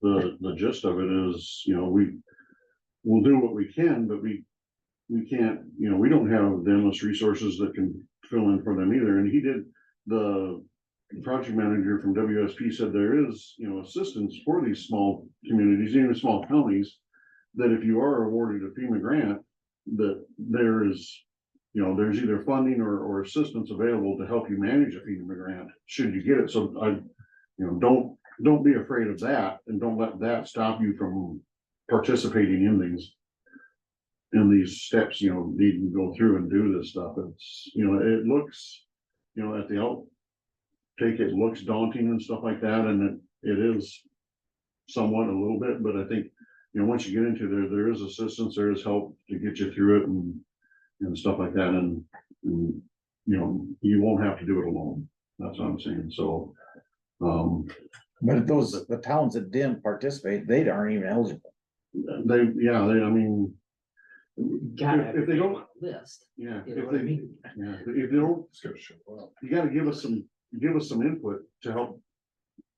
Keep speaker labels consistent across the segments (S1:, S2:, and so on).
S1: the, the gist of it is, you know, we, we'll do what we can, but we, we can't, you know, we don't have the endless resources that can fill in for them either, and he did, the project manager from WSP said there is, you know, assistance for these small communities, even small counties, that if you are awarded a FEMA grant, that there is, you know, there's either funding or, or assistance available to help you manage a FEMA grant, should you get it, so I, you know, don't, don't be afraid of that, and don't let that stop you from participating in these. In these steps, you know, needing to go through and do this stuff, it's, you know, it looks, you know, at the out. Take it looks daunting and stuff like that, and it, it is. Somewhat a little bit, but I think, you know, once you get into there, there is assistance, there is help to get you through it and. And stuff like that, and, and, you know, you won't have to do it alone, that's what I'm saying, so. Um,
S2: But if those, the towns that didn't participate, they aren't even eligible.
S1: they, yeah, they, I mean,
S3: gotta
S1: If- if they
S3: everybody
S1: don't-
S3: on the List,
S1: yeah,
S3: you know
S1: if
S3: what I
S1: they,
S3: mean?
S1: yeah, if they don't, you gotta give us some, give us some input to help.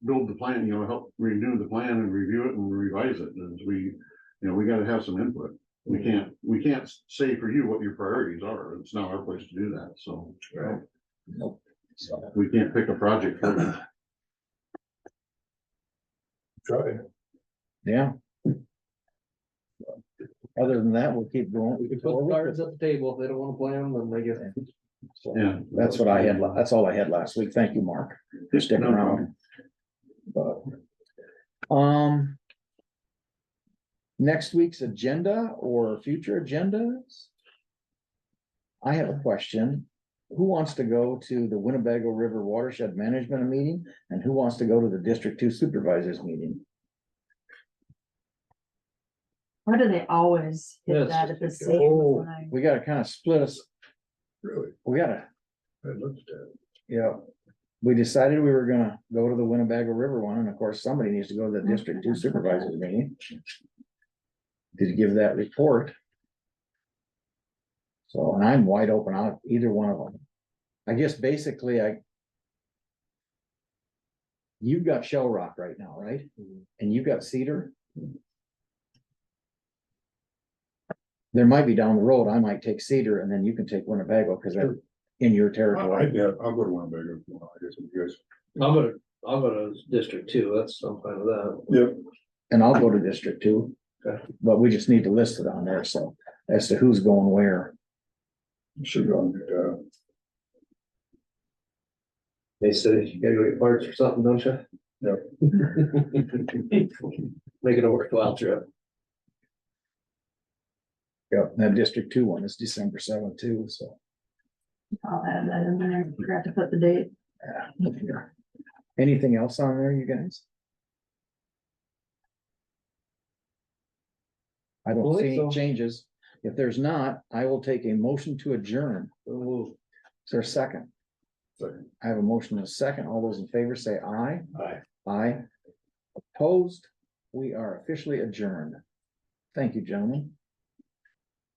S1: Build the plan, you know, help renew the plan and review it and revise it, and we, you know, we gotta have some input. We
S3: Mm-hmm.
S1: can't, we can't say for you what your priorities are, it's not our place to do that, so
S2: Right. Nope. So,
S1: we can't pick a project for you.
S4: Try.
S2: yeah. Other than that, we'll keep
S5: We
S2: going.
S5: can put cards at the table, if they don't wanna play them, then they get.
S2: So,
S1: yeah.
S2: That's what I had, la- that's all I had last week. Thank you, Mark, for sticking
S1: No problem.
S2: around. But, Um. Next week's agenda or future agendas? I have a question. Who wants to go to the Winnebago River Watershed Management Meeting? And who wants to go to the District Two Supervisors Meeting?
S6: Why do they always
S5: Yeah,
S6: hit
S5: it's
S6: that
S5: just
S6: at the
S5: like,
S2: oh.
S6: same time?
S2: We gotta kind of split us,
S4: Really,
S2: we gotta,
S4: I looked at
S2: you know. We decided we were gonna go to the Winnebago River one, and of course, somebody needs to go to the District Two Supervisors Meeting. Did you give that report? So, and I'm wide open on either one of them. I guess basically I. You've got Shell Rock right now, right?
S4: Mm-hmm.
S2: And you've got Cedar? There might be down the road, I might take Cedar and then you can take Winnebago, because they're in your
S4: it. I,
S2: territory.
S4: yeah, I'll go to one bigger, I guess, if you guys.
S5: I'm gonna, I'm gonna district two, that's, I'm fine with that.
S4: Yep.
S2: And I'll go to District Two.
S5: Okay.
S2: But we just need to list it on there, so as to who's going where.
S4: Should go on, uh,
S5: They said, you gotta go get parts or something, don't you? Yep. Make it a worthwhile trip.
S2: Yep. That District Two one is December seventh too, so.
S6: I'll add that in there, forgot to put the date.
S2: yeah. Anything else on there, you guys? I don't
S5: Believe
S2: see
S5: so.
S2: any changes. If there's not, I will take a motion to adjourn.
S5: Ooh,
S2: Is there a second?
S4: second.
S2: I have a motion and a second. All those in favor say aye.
S5: Aye.
S2: Aye. Opposed, we are officially adjourned. Thank you, gentlemen.